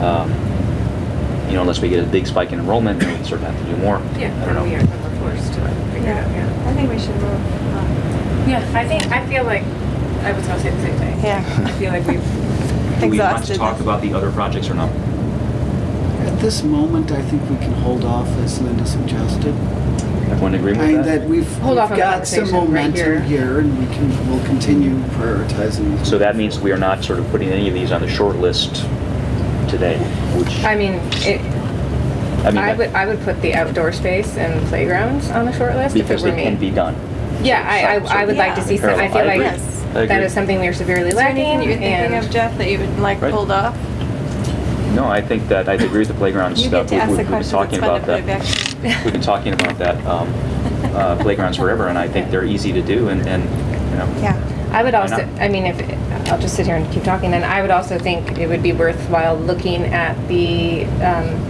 Um, You know, unless we get a big spike in enrollment, then we sort of have to do more. Yeah, I don't we know. are the force to figure it out, yeah. I think we should move on. Yeah, I think, I feel like, I was gonna say the same thing. Yeah. I feel like Do we we've, want to Exhausted talk this. about the other projects or not? At this moment, I think we can hold off, as Linda suggested. Everyone agree I with mean, that? that we've Hold we've off on got some conversation right here. momentum here, and we can, we'll continue prioritizing. So that means we are not sort of putting any of these on the short list today, which, I mean, it, I mean, I would, that- I would put the outdoor space and playgrounds on the short list if it because were they can me. be done. Yeah, I, So- I, I would like to Yeah. see some, I Parallel. feel agree. like Yes. I that agree. is something we are severely Is there anything lacking you were thinking of, and. Jeff, that you would like Right. pulled off? No, I think that, I agree with the playground You stuff. get to We- ask we- the we've been questions. talking It's fun to about play that. back. to you. We've been talking about that, um, uh, playgrounds forever, and I think they're easy to do and, and, you know. Yeah. I would Why also, not? I mean, if, I'll just sit here and keep talking, then I would also think it would be worthwhile looking at the, um,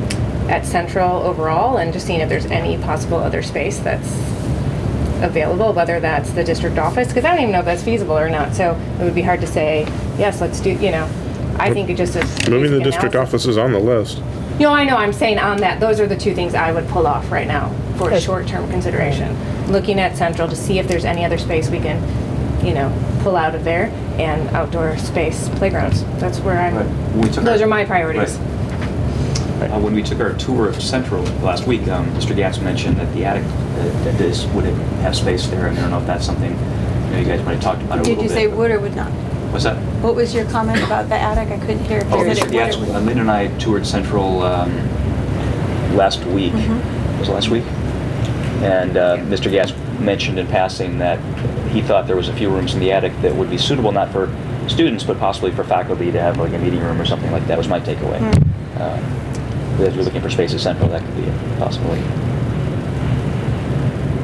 at Central overall and just seeing if there's any possible other space that's available, whether that's the district office, because I don't even know if that's feasible or not, so it would be hard to say, yes, let's do, you know, I think it just is. Moving the basic district analysis. office is on the list. No, I know, I'm saying on that, those are the two things I would pull off right now for short-term consideration. Looking at Central to see if there's any other space we can, you know, pull out of there and outdoor space playgrounds. That's where I'm, When we took our- those are my priorities. Right. Uh, When we took our tour of Central last week, um, Mr. Gatz mentioned that the attic, uh, that this would have space there, and I don't know if that's something, you know, you guys might have talked about it a little Did bit. you say but- would or would not? What's that? What was your comment about the attic? I couldn't hear. if you Oh, said Mr. it would or Gatz, would uh, Lynn and I toured Central um, last week. Mhm. Was it last week? And uh, Mr. Gatz mentioned in passing that he thought there was a few rooms in the attic that would be suitable, not for students, but possibly for faculty to have like a meeting room or something like that, was my takeaway. Hmm. Um, If you're looking for space at Central, that could be a possibility.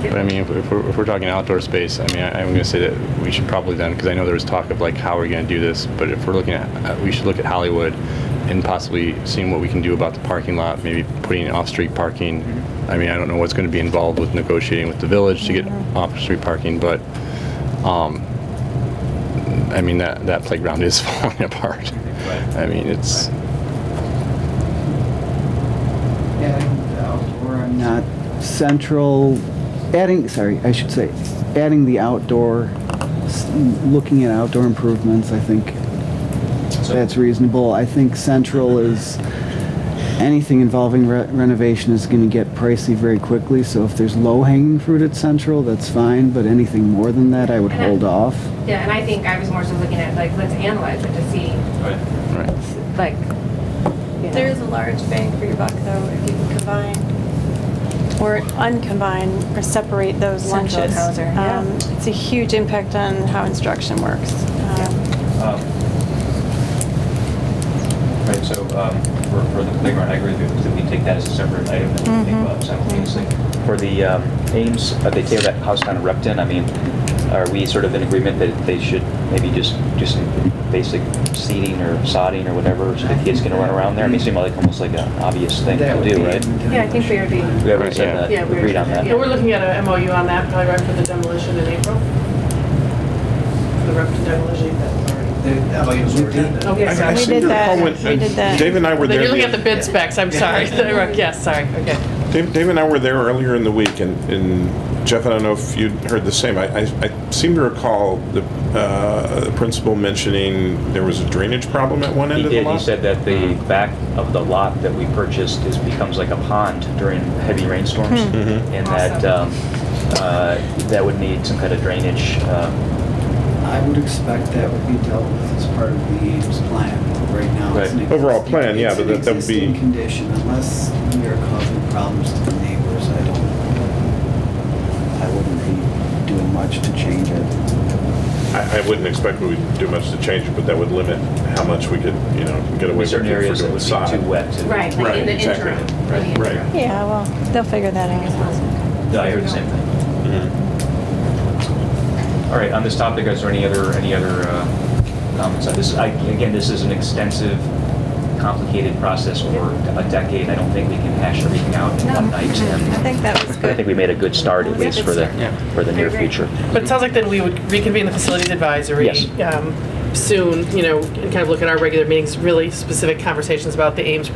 But I mean, if, if, we're, if we're talking outdoor space, I mean, I, I'm going to say that we should probably then, because I know there was talk of like how we're going to do this, but if we're looking at, uh, we should look at Hollywood and possibly seeing what we can do about the parking lot, maybe putting off-street parking. I mean, I don't know what's going to be involved with negotiating with the village to get off-street parking, but, um, I mean, that, that playground is falling apart. Right. I mean, it's, Adding the outdoor, I'm not central, adding, sorry, I should say, adding the outdoor, s- looking at outdoor improvements, I think So- that's reasonable. I think central is, anything involving re- renovation is going to get pricey very quickly. So if there's low hanging fruit at central, that's fine, but anything more than that, I would And I- hold off. Yeah, and I think I was more so looking at like, let's analyze it to see, Right. right. like, you There know. is a large bang for your buck, though, if you can combine or uncombine or separate those Central lunches. Hauser, yeah. Um, It's a huge impact on how instruction works. Um, Um, Right, so um, for, for the playground, I agree with you, that we take that as a separate item and we think about it simultaneously. For the um, Ames, uh, they tear that house down in Repton, I mean, are we sort of in agreement that they should maybe just, just basic seating or sodding or whatever, so the kids can run around there? I mean, it seemed like almost like an obvious thing That to would do, be- right? Yeah, I think we would be. We already Yeah. said that, Yeah, we agreed on that. Yeah, we're looking at a MOU on that, probably right for the demolition in April. For the Repton demolition, that's already. Okay, I- I We seem did to that. recall when- We did that. Dave and I were Then there. you're looking the- at the bid specs, I'm sorry. Yes, sorry, okay. Dave, Dave and I were there earlier in the week, and, and Jeff, I don't know if you'd heard the same. I, I, I seem to recall the, uh, the principal mentioning there was a drainage problem at one end He of the did. lot. He said that the back of the lot that we purchased is, becomes like a pond during heavy rainstorms. Hmm. Mm-hmm. And that, um, uh, that would need some kind of drainage. um, I would expect that would be dealt with as part of the Ames plan. Right now, it's an Right. existing... Overall plan, yeah, but that- that would It's be- an existing condition, unless we are causing problems to the neighbors, I don't... I wouldn't be doing much to change it. I, I wouldn't expect we would do much to change it, but that would limit how much we could, you know, get away with it for Certain doing areas that would sod. be too wet. to- Right, like in Right, the exactly. interim. for the Right. interim. Yeah, well, they'll figure that out. No, I heard the same thing. Mhm. All right, on this topic, is there any other, any other uh, comments? Uh, This, I- again, this is an extensive, complicated process over a decade. I don't think we can hash everything out in one No, night. and I think that was but I good. think we made a good start, at It was a least good for the, start. for the near I agree. future. But it sounds like then we would reconvene the facilities advisory. Yes. um, soon, you know, and kind of look at our regular meetings, really specific conversations about the Ames